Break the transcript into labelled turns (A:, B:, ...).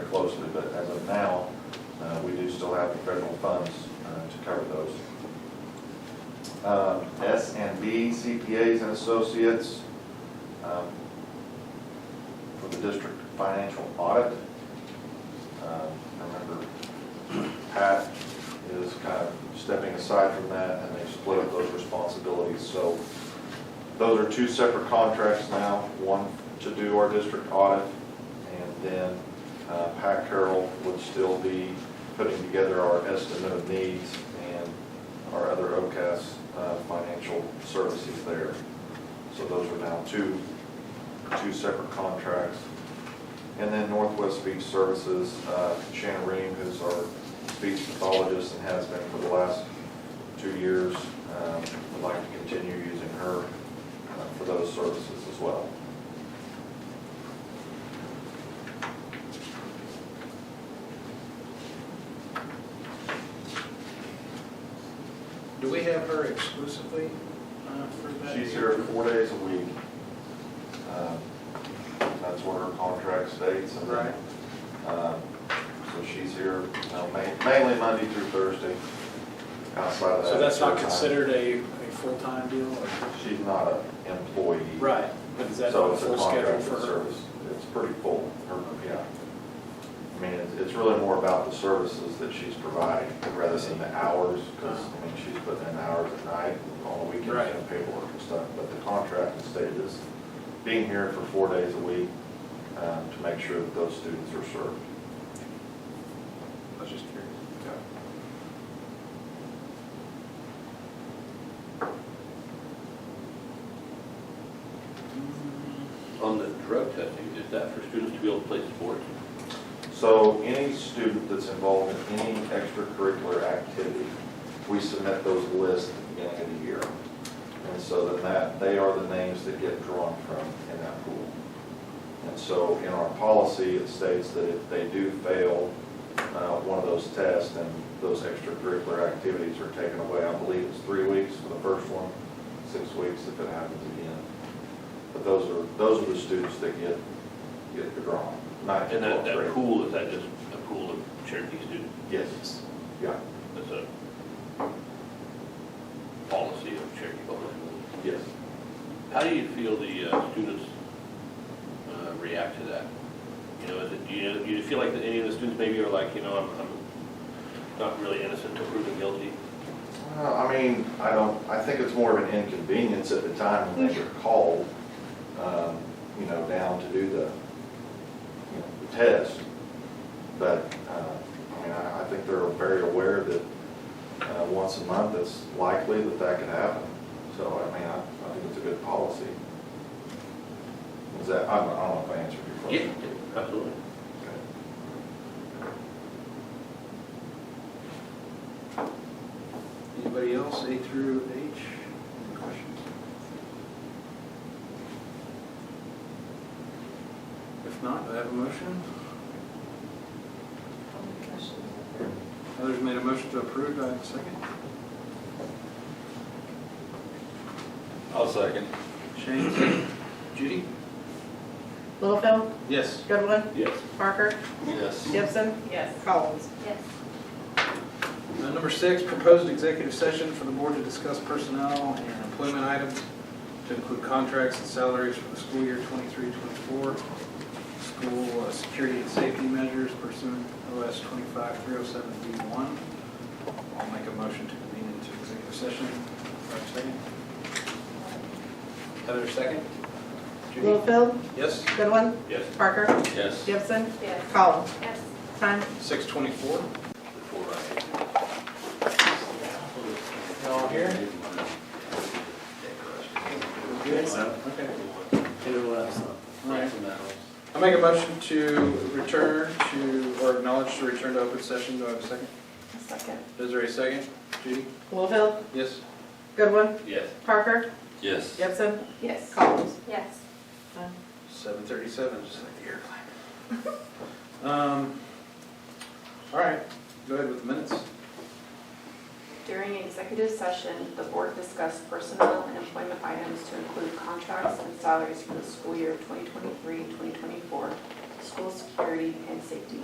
A: uh, uh, S and B CPAs and Associates um, for the district financial audit. Um, I Remember Pat is kind of stepping aside from that and they split up those responsibilities. So those are two separate contracts now, one to do our district audit and then uh, Pat Carroll would still be putting together our estimate of needs and our other OCAS uh, financial services there. So those are now two, two separate contracts. And then Northwest Speech Services, uh, Shannon Ream, who's our speech pathologist and has been for the last two years, um, would like to continue using her uh, for those services as well.
B: Do we have her exclusively uh, for that?
A: She's here four days a week. Um, That's what her contract states. and then, um, So she's here you know, ma- mainly Monday through Thursday. Outside of that.
B: So that's not
A: full-time.
B: considered a, a full-time deal? or-
A: She's not an employee.
B: Right, but is that
A: So
B: a
A: it's
B: full schedule
A: contracted
B: for her?
A: service. It's pretty full, her, yeah. I mean, it's- it's really more about the services that she's providing rather than the hours, because, I mean, she's putting in hours at night, and all the weekends
B: Right.
A: and paperwork and stuff, but the contract is stated as being here for four days a week um, to make sure that those students are served.
B: I was just curious.
C: On the drug testing, is that for students to be able to play sports?
A: So any student that's involved in any extracurricular activity, we submit those lists at the beginning of the year. And so then that, they are the names that get drawn from in that pool. And so in our policy, it states that if they do fail uh, one of those tests, then those extracurricular activities are taken away. I believe it's three weeks for the first one, six weeks if it happens again. But those are, those are the students that get, get the draw, not
C: And that,
A: twelfth
C: that
A: grade.
C: pool, is that just a pool of Cherokee students?
A: Yes, yeah,
C: That's a policy of Cherokee Public Schools.
A: yes.
C: How do you feel the uh, students uh, react to that? You know, is it, do you, do you feel like that any of the students maybe are like, you know, I'm, I'm not really innocent to proven guilty?
A: Well, I mean, I don't, I think it's more of an inconvenience at the time when they're called, um, you know, down to do the, you know, the test. But, uh, I mean, I, I think they're very aware that, uh, once a month, it's likely that that could happen. So, I mean, I, I think it's a good policy. Is that, I don't I don't know if I answered your question.
C: Absolutely.
A: Okay.
B: Anybody else, A through H, any questions? If not, do I have a motion? Others made a motion to approve, do I have a second?
D: I'll second.
B: Shane, second. Judy?
E: Littlefield,
B: Yes.
E: Goodwin,
C: Yes.
E: Parker,
D: Yes.
E: Gibson,
F: Yes.
E: Collins.
F: Yes.
B: Uh, Number six, proposed executive session for the board to discuss personnel and employment items to include contracts and salaries for the school year 23-24, school uh, security and safety measures pursuant to OS 25307B1. I'll make a motion to convene into executive session. Do I have a Second. Heather, second. Judy?
E: Littlefield,
B: Yes?
E: Goodwin,
C: Yes.
E: Parker,
D: Yes.
E: Gibson,
F: Yes.
E: Collins.
F: Yes.
E: Time
B: 6:24.
C: Before I.
B: All here? Okay. Right. I make a motion to return to, or acknowledge to return to open session, do I have a second?
F: Second.
B: Desiree, second. Judy?
E: Littlefield,
B: Yes.
E: Goodwin,
C: Yes.
E: Parker,
D: Yes.
E: Gibson,
F: Yes.
E: Collins.
F: Yes.
E: Time.
B: Seven thirty-seven, just like the airplane. Um, all right, go ahead with the minutes.
F: During executive session, the board discussed personnel and employment items to include contracts and salaries for the school year 2023-2024, school security and safety